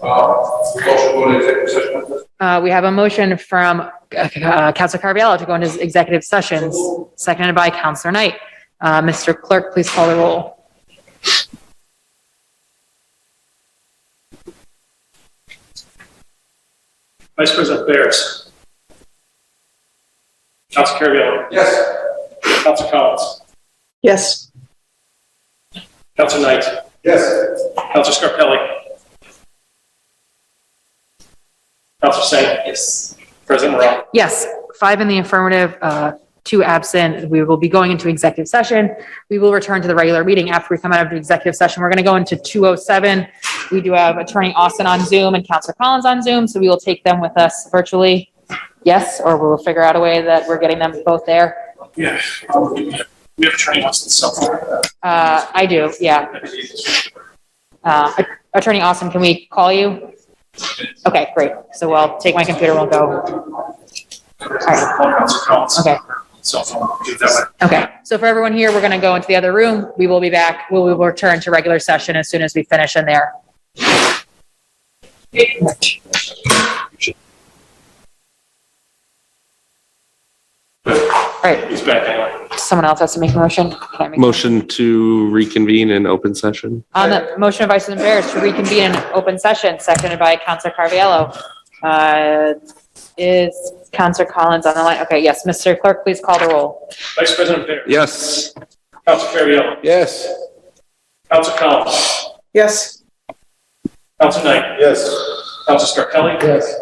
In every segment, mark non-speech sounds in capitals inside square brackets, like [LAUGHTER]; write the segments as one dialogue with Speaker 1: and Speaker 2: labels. Speaker 1: Uh, motion going to executive session on this?
Speaker 2: Uh, we have a motion from, uh, Counselor Carviallo to go into executive sessions, seconded by Counselor Knight. Uh, Mr. Clerk, please call the roll.
Speaker 3: Vice President Barris. Council Carviallo.
Speaker 1: Yes.
Speaker 3: Council Collins.
Speaker 4: Yes.
Speaker 3: Council Knight.
Speaker 1: Yes.
Speaker 3: Council Scarpelli. Council Singh. Yes. President Morrell.
Speaker 2: Yes, five in the affirmative, uh, two absent. We will be going into executive session. We will return to the regular meeting after we come out of the executive session. We're going to go into 207. We do have Attorney Austin on Zoom and Counselor Collins on Zoom, so we will take them with us virtually. Yes, or we'll figure out a way that we're getting them both there.
Speaker 3: Yeah. We have attorney Austin Silver.
Speaker 2: Uh, I do, yeah. Uh, Attorney Austin, can we call you? Okay, great. So I'll take my computer, we'll go.
Speaker 3: Council Collins.
Speaker 2: Okay,
Speaker 3: Cell phone. Do it that way.
Speaker 2: okay. So for everyone here, we're going to go into the other room. We will be back. We will return to regular session as soon as we finish in there. All right,
Speaker 3: He's back anyway.
Speaker 2: someone else has to make a motion? Can I make-
Speaker 5: Motion to reconvene in open session.
Speaker 2: On the motion of Vice President Barris to reconvene in open session, seconded by Counselor Carviallo. Uh, Is Counselor Collins on the line? Okay, yes, Mr. Clerk, please call the roll.
Speaker 3: Vice President Barris.
Speaker 5: Yes.
Speaker 3: Council Carviallo.
Speaker 1: Yes.
Speaker 3: Council Collins.
Speaker 4: Yes.
Speaker 3: Council Knight.
Speaker 1: Yes.
Speaker 3: Council Scarpelli.
Speaker 1: Yes.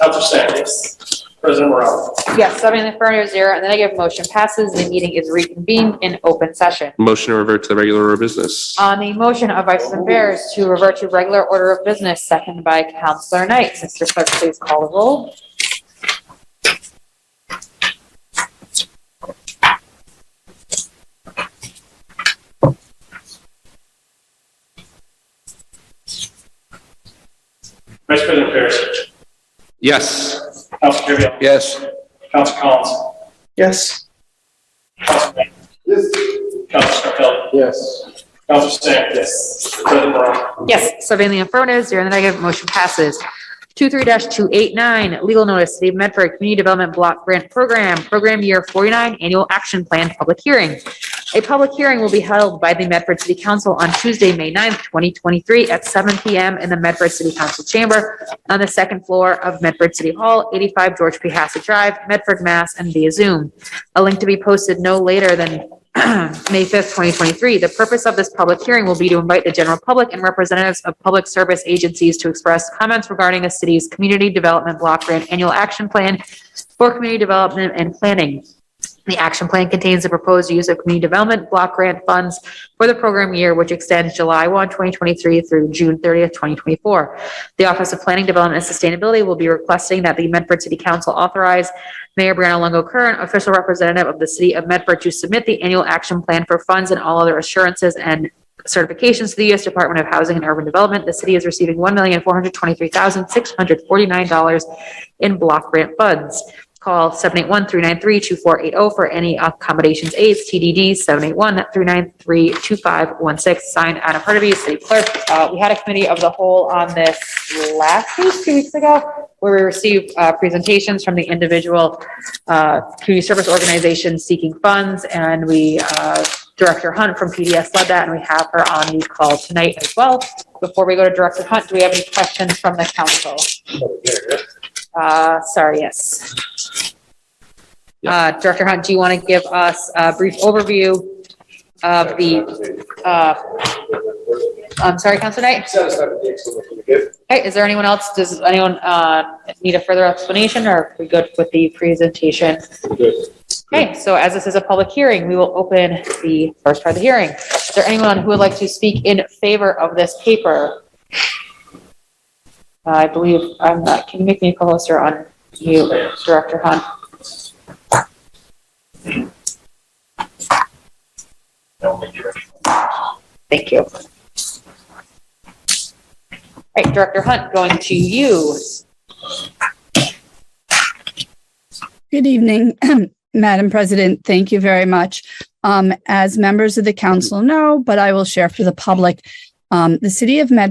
Speaker 3: Council Singh. Yes. President Morrell.
Speaker 2: Yes, seven in the affirmative, zero, and the negative motion passes. The meeting is reconvened in open session.
Speaker 5: Motion to revert to the regular order of business.
Speaker 2: On the motion of Vice President Barris to revert to regular order of business, seconded by Counselor Knight. Mr. Clerk, please call the roll.
Speaker 3: Vice President Barris.
Speaker 5: Yes.
Speaker 3: Council Carviallo.
Speaker 5: Yes.
Speaker 3: Council Collins.
Speaker 4: Yes.
Speaker 3: Council Knight.
Speaker 1: Yes.
Speaker 3: Council Scarpelli.
Speaker 1: Yes.
Speaker 3: Council Singh. Yes. President Morrell.
Speaker 2: Yes, seven in the affirmative, zero in the negative, motion passes. Two-three dash two-eight-nine, legal notice, City of Medford Community Development Block Grant Program, Program Year Forty-nine, Annual Action Plan, Public Hearing. A public hearing will be held by the Medford City Council on Tuesday, May 9th, twenty twenty-three, at seven PM in the Medford City Council Chamber on the second floor of Medford City Hall, eighty-five George P. Hassett Drive, Medford, Mass, and via Zoom. A link to be posted no later than [CLEARS THROAT] May 5th, 2023. The purpose of this public hearing will be to invite the general public and representatives of public service agencies to express comments regarding the city's Community Development Block Grant Annual Action Plan for Community Development and Planning. The action plan contains the proposed use of community development block grant funds for the program year, which extends July 1, 2023 through June 30th, 2024. The Office of Planning, Development, and Sustainability will be requesting that the Medford City Council authorize Mayor Brianna Longo Curran, official representative of the City of Medford, to submit the annual action plan for funds and all other assurances and certifications to the U.S. Department of Housing and Urban Development. The city is receiving $1,423,649 in block grant funds. Call 781-393-2480 for any accommodations aids, TDD 781-393-2516. Signed, Anna Partovi, City Clerk. Uh, We had a committee of the whole on this last week, two weeks ago, where we received uh, presentations from the individual uh, community service organizations seeking funds, and we, uh, Director Hunt from PDS led that, and we have her on the call tonight as well. Before we go to Director Hunt, do we have any questions from the council? Uh, Sorry, yes. Uh, Director Hunt, do you want to give us a brief overview of the, uh, I'm sorry, Council Knight?
Speaker 1: Satisfied with the explanation you gave?
Speaker 2: Okay, is there anyone else, does anyone uh, need a further explanation, or are we good with the presentation?
Speaker 1: Good.
Speaker 2: Okay, so as this is a public hearing, we will open the first part of the hearing. Is there anyone who would like to speak in favor of this paper? I believe, I'm not, can you make me closer on you, Director Hunt? Thank you. All right, Director Hunt, going to you.
Speaker 6: Good evening, [CLEARS THROAT] Madam President. Thank you very much. Um, as members of the council know, but I will share for the public, um, the city of Medford